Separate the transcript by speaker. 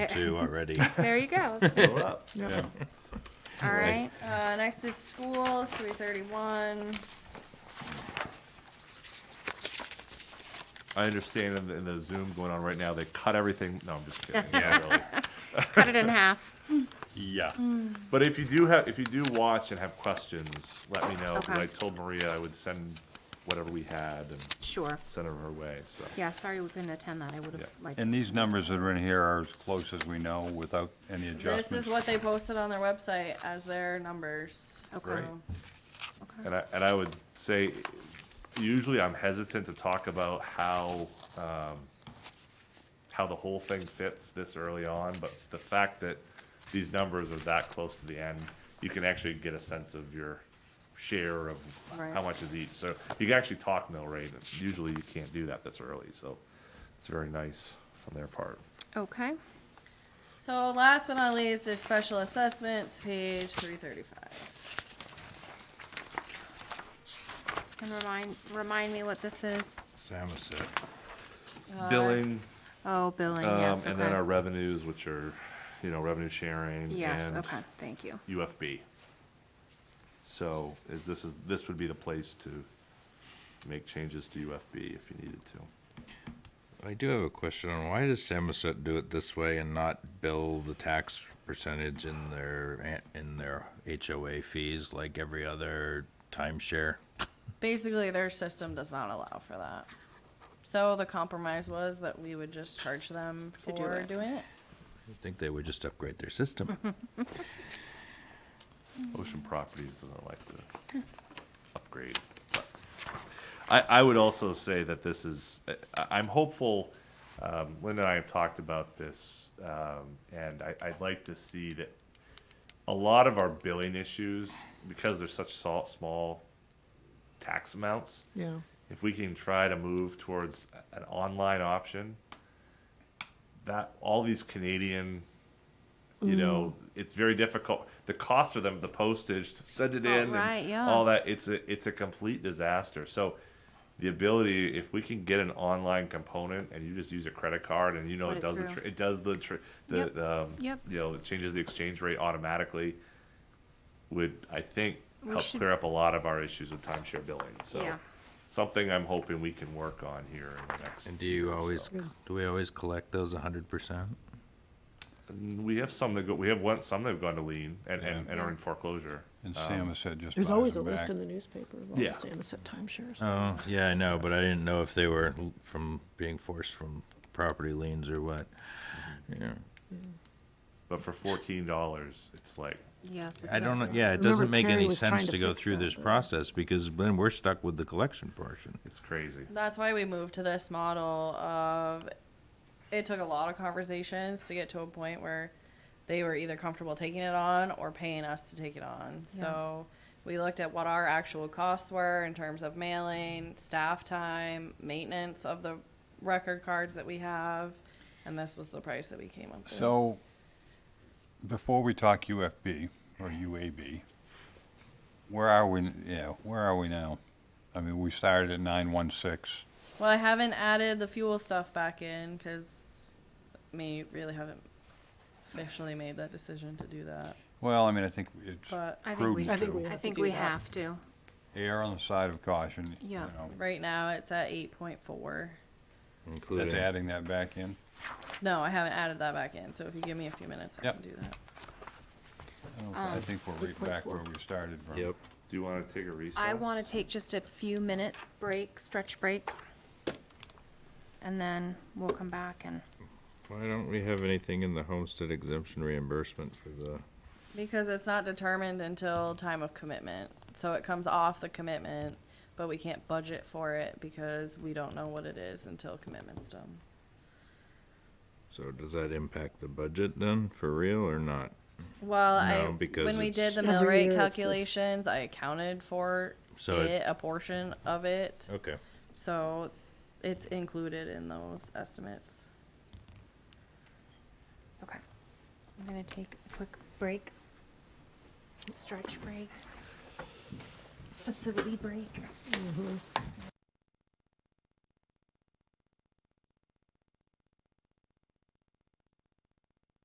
Speaker 1: two already.
Speaker 2: There you go.
Speaker 3: Blow it up.
Speaker 1: Yeah.
Speaker 2: All right.
Speaker 4: Uh, next is schools, three thirty-one.
Speaker 3: I understand in the, in the Zoom going on right now, they cut everything. No, I'm just kidding. Yeah, really.
Speaker 2: Cut it in half.
Speaker 3: Yeah. But if you do have, if you do watch and have questions, let me know. 'cause
Speaker 2: Okay.
Speaker 3: I told Maria I would send whatever we had and
Speaker 2: Sure.
Speaker 3: send it her way, so.
Speaker 2: Yeah, sorry we couldn't attend that. I would
Speaker 3: Yeah.
Speaker 2: have liked.
Speaker 5: And these numbers that are in here are as close as we know without any
Speaker 4: This is
Speaker 5: adjustments.
Speaker 4: what they posted on their website as their numbers.
Speaker 2: Okay.
Speaker 3: Great.
Speaker 4: so-
Speaker 2: okay.
Speaker 3: And I, and I would say, usually I'm hesitant to talk about how, um, how the whole thing fits this early on, but the fact that these numbers are that close to the end, you can actually get a sense of your share of
Speaker 4: Right.
Speaker 3: how much is each. So you can actually talk mill rate, and usually you can't do that this early, so it's very nice on their part.
Speaker 2: Okay.
Speaker 4: So last but not least is special assessments, page three thirty-five.
Speaker 2: And remind, remind me what this is.
Speaker 1: Samoset.
Speaker 3: Billing,
Speaker 2: Oh, billing,
Speaker 3: um,
Speaker 2: yes,
Speaker 3: and then our
Speaker 2: okay.
Speaker 3: revenues, which are, you know, revenue sharing
Speaker 2: Yes,
Speaker 3: and
Speaker 2: okay, thank you.
Speaker 3: UFB. So is this is, this would be the place to make changes to UFB if you needed to.
Speaker 1: I do have a question on why does Samoset do it this way and not bill the tax percentage in their in their HOA fees like every other timeshare?
Speaker 4: Basically, their system does not allow for that. So the compromise was that we would just charge them
Speaker 2: To do
Speaker 4: for
Speaker 2: it.
Speaker 4: doing it.
Speaker 1: I think they would just upgrade their system.
Speaker 3: Ocean Properties doesn't like to upgrade. but- I, I would also say that this is, I, I'm hopeful, um, Linda and I have talked about this, um, and I, I'd like to see that a lot of our billing issues, because they're such sol- small tax amounts,
Speaker 6: Yeah.
Speaker 3: if we can try to move towards an online option, that all these Canadian, you know, it's very difficult. The cost of them, the postage to send it
Speaker 2: Oh,
Speaker 3: in, and
Speaker 2: right, yeah.
Speaker 3: all that. It's a it's a complete disaster. So. The ability, if we can get an online component and you just use a credit card and you know
Speaker 2: Put
Speaker 3: it
Speaker 2: it
Speaker 3: does the
Speaker 2: through.
Speaker 3: tr- it does the tr- the
Speaker 2: Yep.
Speaker 3: um,
Speaker 2: Yep.
Speaker 3: you know it changes the exchange rate automatically, would I think
Speaker 2: We
Speaker 3: help
Speaker 2: should-
Speaker 3: clear up a lot of our issues with timeshare billing. So
Speaker 2: Yeah.
Speaker 3: something I'm hoping we can work on here in the next.
Speaker 1: And do you always do we always collect those 100%?
Speaker 3: And We have some that go, we have one, some that have gone to lien and, and, and
Speaker 2: Yeah.
Speaker 3: are in foreclosure.
Speaker 5: And
Speaker 4: Oh.
Speaker 5: Sam has said just buy
Speaker 6: There's always a
Speaker 5: them
Speaker 6: list
Speaker 5: back.
Speaker 6: in the newspaper of all the
Speaker 3: Yeah.
Speaker 6: Samoset timeshares.
Speaker 1: Oh, yeah, I know, but I didn't know if they were l- from being forced from property liens or what.
Speaker 6: Mm-hmm.
Speaker 1: Yeah.
Speaker 3: But for fourteen dollars, it's like,
Speaker 2: Yes.
Speaker 1: I don't know,
Speaker 2: exactly.
Speaker 1: yeah, it
Speaker 6: Remember
Speaker 1: doesn't make
Speaker 6: Carrie
Speaker 1: any
Speaker 6: was trying
Speaker 1: sense
Speaker 6: to
Speaker 1: to go
Speaker 6: fix
Speaker 1: through
Speaker 6: that,
Speaker 1: this
Speaker 6: but-
Speaker 1: process because then we're stuck with the collection portion.
Speaker 3: it's crazy.
Speaker 4: That's why we moved to this model of it took a lot of conversations to get to a point where they were either comfortable taking it on or paying us to take it on. So we looked at what our actual costs were in terms of mailing, staff time, maintenance of the record cards that we have, and this was the price that we came up with.
Speaker 5: So, before we talk UFB or UAB, where are we, n- yeah, where are we now? I mean, we started at nine one six.
Speaker 4: Well, I haven't added the fuel stuff back in because me really haven't officially made that decision to do that.
Speaker 5: Well, I mean, I think it's
Speaker 4: But
Speaker 2: I think we,
Speaker 5: prudent
Speaker 6: we
Speaker 5: to
Speaker 2: I
Speaker 6: have to
Speaker 2: think
Speaker 6: do
Speaker 2: we
Speaker 6: that.
Speaker 2: have to.
Speaker 5: err on the side of caution, you
Speaker 2: Yeah.
Speaker 5: know.
Speaker 4: right now it's at eight point four.
Speaker 5: That's
Speaker 1: Including,
Speaker 5: adding that back in.
Speaker 4: No, I haven't added that back in, so if you give me a few minutes, I
Speaker 5: Yep.
Speaker 4: can do that.
Speaker 5: I
Speaker 4: Um,
Speaker 5: don't- I think we're right back where we started from.
Speaker 1: yep,
Speaker 3: Do you wanna take a recess?
Speaker 2: I want to take just a few minutes break, stretch break. And then we'll come back and,
Speaker 1: why don't we have anything in the homestead exemption reimbursement for the?
Speaker 4: Because it's not determined until time of commitment, so it comes off the commitment, but we can't budget for it because we don't know what it is until commitment's done.
Speaker 1: So does that impact the budget then, for real or not?
Speaker 4: Well, I,
Speaker 1: No, because
Speaker 4: when we
Speaker 1: it's-
Speaker 4: did the mill
Speaker 6: Every
Speaker 4: rate
Speaker 6: year it's this.
Speaker 4: calculations, I accounted for
Speaker 1: So it-
Speaker 4: it, a portion of it,
Speaker 1: Okay.
Speaker 4: so it's included in those estimates.
Speaker 2: okay. I'm going to take a quick break. Stretch break. Facility break.